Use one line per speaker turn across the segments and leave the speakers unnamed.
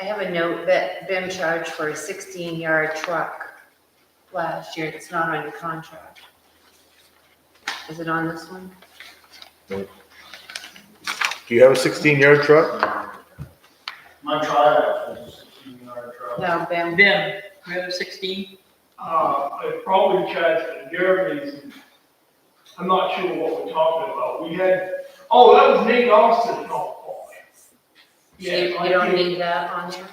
I have a note that Ben charged for a sixteen yard truck last year, it's not on your contract. Is it on this one?
Do you have a sixteen yard truck?
My trial was a sixteen yard truck.
No, Ben,
Ben, we have a sixteen,
Uh, I probably charged for Jeremy's. and I'm not sure what we're talking about. We had, oh, that was Nate Austin, no. oh,
you,
Yeah,
you
I
don't
think,
need that on there?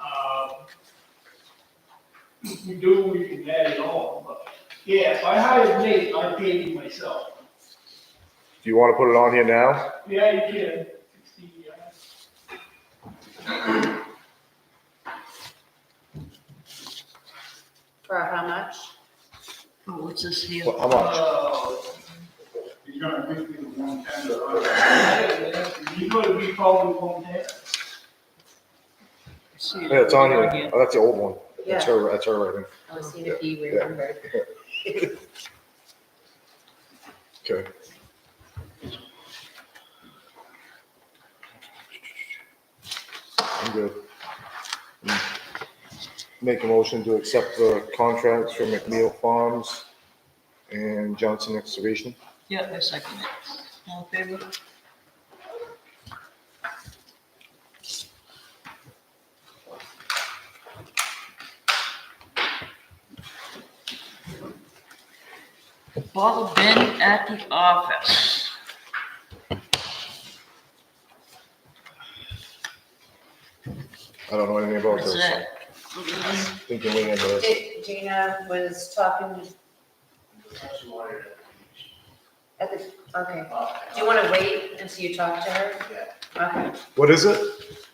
uh, If we do, we can add it on, but, yeah, if I hired Nate, I paid him myself.
Do you want to put it on here now?
Yeah, you can, sixteen yards.
For how much?
oh, what's this here?
Well, How much?
Uh,
He's gonna give me the one ten
You gotta be following one there.
Yeah, it's on here. Oh, that's the old one. That's her, that's her writing.
I was seeing if you remembered.
Okay. I'm good. Mm. Make a motion to accept the contracts for McNeil Farms and Johnson Excavation.
Yeah, I second it. All in favor? Bottle bin at the office.
I don't know anything about
What's
this.
that?
I think you're waiting for this.
Di- Gina was talking at the, okay, do you wanna wait until you talk to her? Okay,
What is it?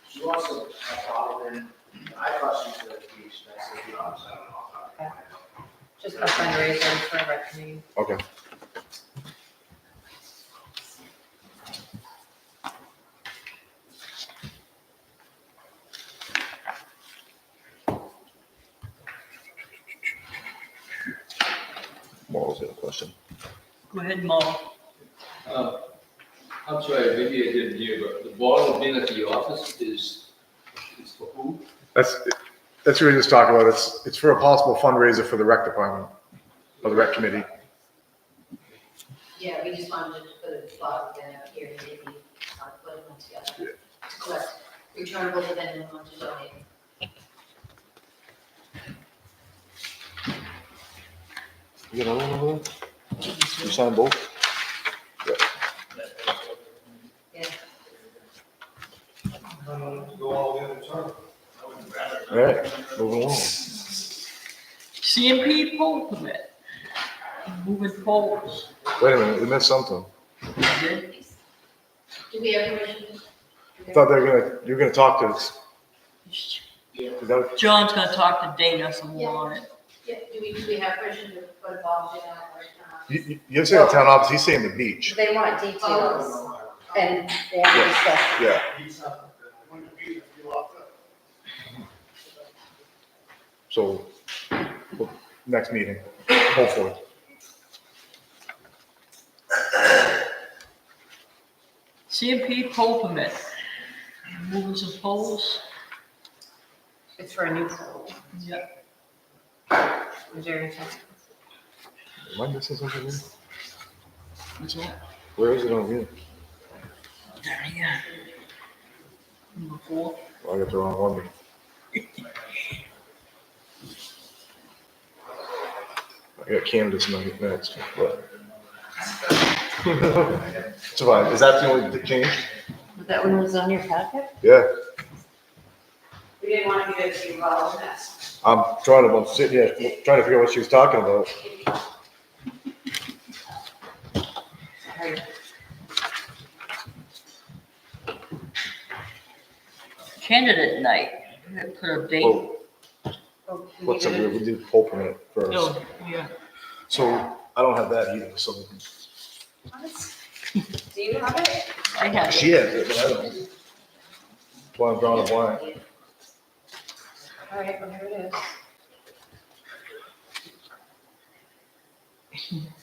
She wants to, I thought, and I thought she was gonna be expensive, you know, so I don't know. I'll talk to her.
just a fundraiser for a rec meeting.
Okay. Morals got a question.
Go ahead, Mo.
Uh, I'm sorry, maybe I didn't hear, but the bottle bin at the office is, is for who?
That's, that's what we were just talking about. It's, it's for a possible fundraiser for the rec department, or the rec committee.
Yeah, we just wanted to put a bottle bin up here, maybe, uh, put one together. To collect returnable, but then we want to donate.
You got another one over there? You signed both?
Yeah,
Um, Go all the way to the top. I would rather.
All right, moving along.
CMP pole permit. Moving poles.
Wait a minute, we missed something.
do we have permission?
I thought they were gonna, you were gonna talk to us. Is that what-
John's gonna talk to Dana some more on it.
Yeah, do we, do we have permission to put a bottle bin out right now?
You, you- you're saying the town office, he's saying the beach.
They want details and they have to
Yeah.
discuss.
Yeah. So, well, next meeting, hopefully.
CMP pole permit. Moving some poles.
It's for a new pool.
Yeah.
Is there anything?
Am I missing something here?
What's that?
Where is it on here?
There you go. Number four.
Oh, I got the wrong one. I got Candace ne- next, but. It's fine. Is that the only change?
That one was on your packet?
Yeah,
We didn't want to get too involved in that.
I'm trying to, I'm sitting here, trying to figure out what she was talking about.
Candidate night. We gotta Put a date.
Well, what's up, we did poll permit first.
No, yeah.
So I don't have that either, so
Do you have it?
I have
she has it,
it.
but I don't. Blind, brown, and blind.
All right, well, here it is.